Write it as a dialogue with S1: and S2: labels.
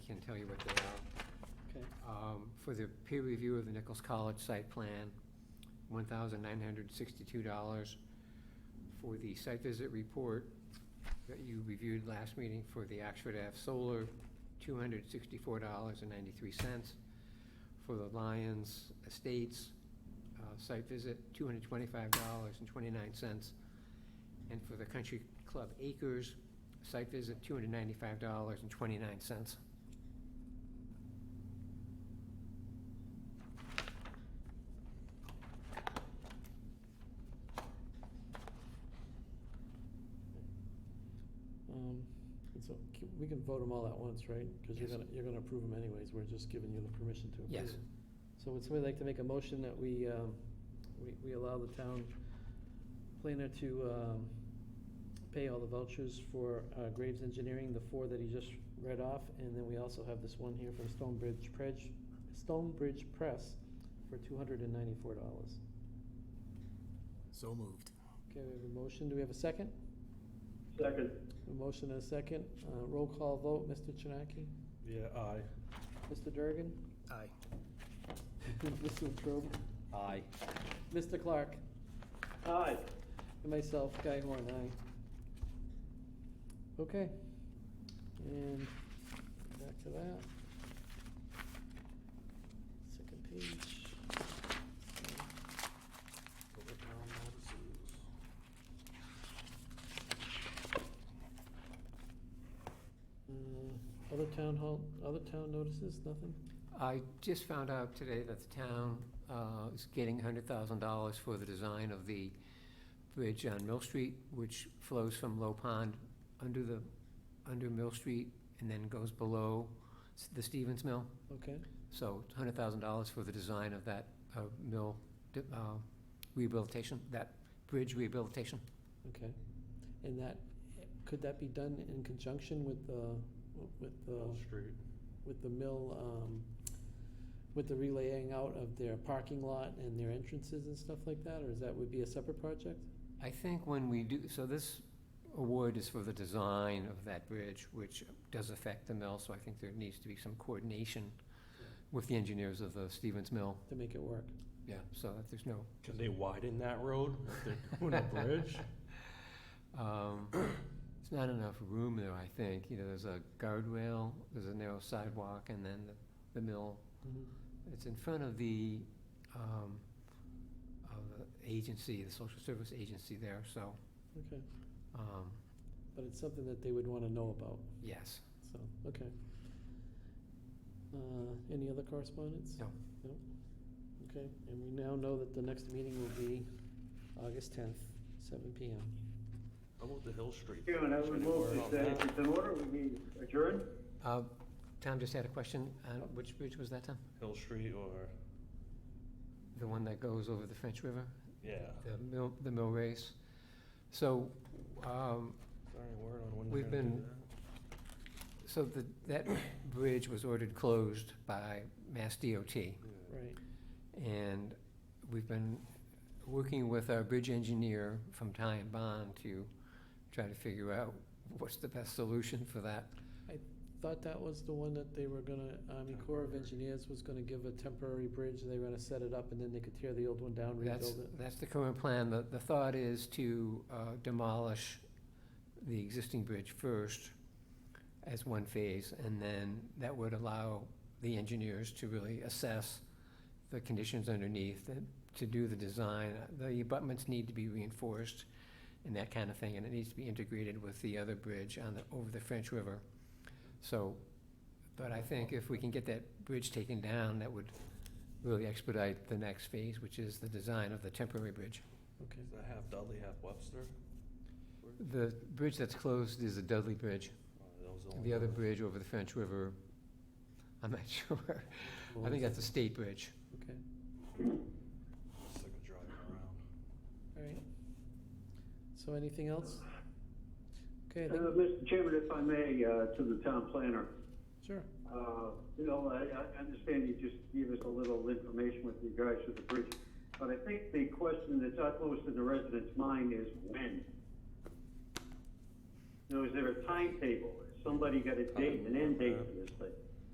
S1: tell you what they are.
S2: Okay.
S1: Um, For the peer review of the Nichols College site plan, one thousand nine hundred sixty-two dollars. For the site visit report that you reviewed last meeting for the Oxford Ave Solar, two hundred sixty-four dollars and ninety-three cents. For the Lions Estates uh, site visit, two hundred twenty-five dollars and twenty-nine cents. And for the Country Club Acres site visit, two hundred ninety-five dollars and twenty-nine cents.
S2: Um, And so c- we can vote them all at once, right? Because you're
S1: Yes.
S2: gonna, you're gonna approve them anyways, we're just giving you the permission to approve.
S1: Yes.
S2: 'em. So would somebody like to make a motion that we, um, we, we allow the town planner to um, pay all the vouchers for uh, Graves Engineering, the four that he just read off, and then we also have this one here from Stonebridge Press, Stonebridge Press for two hundred and ninety-four dollars.
S3: So moved.
S2: Okay, we have a motion, do we have a second?
S4: Second.
S2: A motion and a second, Uh, roll call vote, Mr. Chinaki?
S4: Yeah, aye.
S2: Mr. Durgan?
S3: Aye.
S2: Mr. Trobe?
S4: Aye.
S2: Mr. Clark?
S4: Aye.
S2: And myself, Guy Horn, aye. Okay. And back to that. Second page. Uh, Other town hall, other town notices, nothing?
S1: I just found out today that the town uh, is getting hundred thousand dollars for the design of the bridge on Mill Street, which flows from Low Pond under the, under Mill Street and then goes below s- the Stevens Mill.
S2: Okay,
S1: So it's hundred thousand dollars for the design of that uh, mill d- uh, rehabilitation, that bridge rehabilitation.
S2: okay. And that, could that be done in conjunction with the, with the?
S4: Street.
S2: with the mill, um, with the relaying out of their parking lot and their entrances and stuff like that, or is that would be a separate project?
S1: I think when we do, so this award is for the design of that bridge, which does affect the mill, so I think there needs to be some coordination with the engineers of the Stevens Mill,
S2: To make it work.
S1: yeah, so that there's no,
S4: Can they widen that road if they're doing a bridge?
S1: um, there's not enough room there, I think, you know, there's a guardrail, there's a narrow sidewalk, and then the, the mill. It's in front of the, um, of the agency, the social service agency there, so,
S2: Okay,
S1: um,
S2: but it's something that they would wanna know about,
S1: yes.
S2: so, okay. Uh, any other correspondence?
S1: No.
S2: No? Okay, and we now know that the next meeting will be August tenth, seven P M.
S4: How about the Hill Street?
S5: Chairman, I would move
S4: Should we
S5: that
S4: worry
S5: uh,
S4: about
S5: if it's in order, we mean adjourn.
S1: Uh, Tom just had a question, uh, which bridge was that, Tom?
S4: Hill Street or,
S1: The one that goes over the French River,
S4: yeah,
S1: the mill, the mill race. So, um,
S4: sorry, word on when
S1: We've
S4: they're gonna do
S1: been- so the, that bridge was ordered closed by Mass DOT.
S4: that? Yeah.
S2: Right,
S1: And we've been working with our bridge engineer from Ty and Bond to try to figure out what's the best solution for that.
S2: thought that was the one that they were gonna, Army Corps of
S4: Temporary.
S2: Engineers was gonna give a temporary bridge, and they were gonna set it up, and then they could tear the old one down, rebuild
S1: That's,
S2: it.
S1: that's the current plan. The, the thought is to uh, demolish the existing bridge first as one phase, and then that would allow the engineers to really assess the conditions underneath, and to do the design. The abutments need to be reinforced and that kind of thing, and it needs to be integrated with the other bridge on the, over the French River. So, but I think if we can get that bridge taken down, that would really expedite the next phase, which is the design of the temporary bridge.
S2: Okay,
S4: Is that half Dudley, half Webster?
S1: The bridge that's closed is the Dudley Bridge.
S4: Or are those only
S1: The other
S4: ones?
S1: bridge over the French River, I'm not sure. I think that's a state bridge.
S2: okay,
S4: It's like a drive around.
S2: all right. So anything else? Okay, I
S5: Uh,
S2: think,
S5: Mr. Chairman, if I may, uh, to the town planner,
S2: sure,
S5: uh, you know, I, I understand you just gave us a little information with regards to the bridge, but I think the question that's utmost in the residents' mind is when? You know, is there a timetable? Has somebody got a date, an end date for this thing?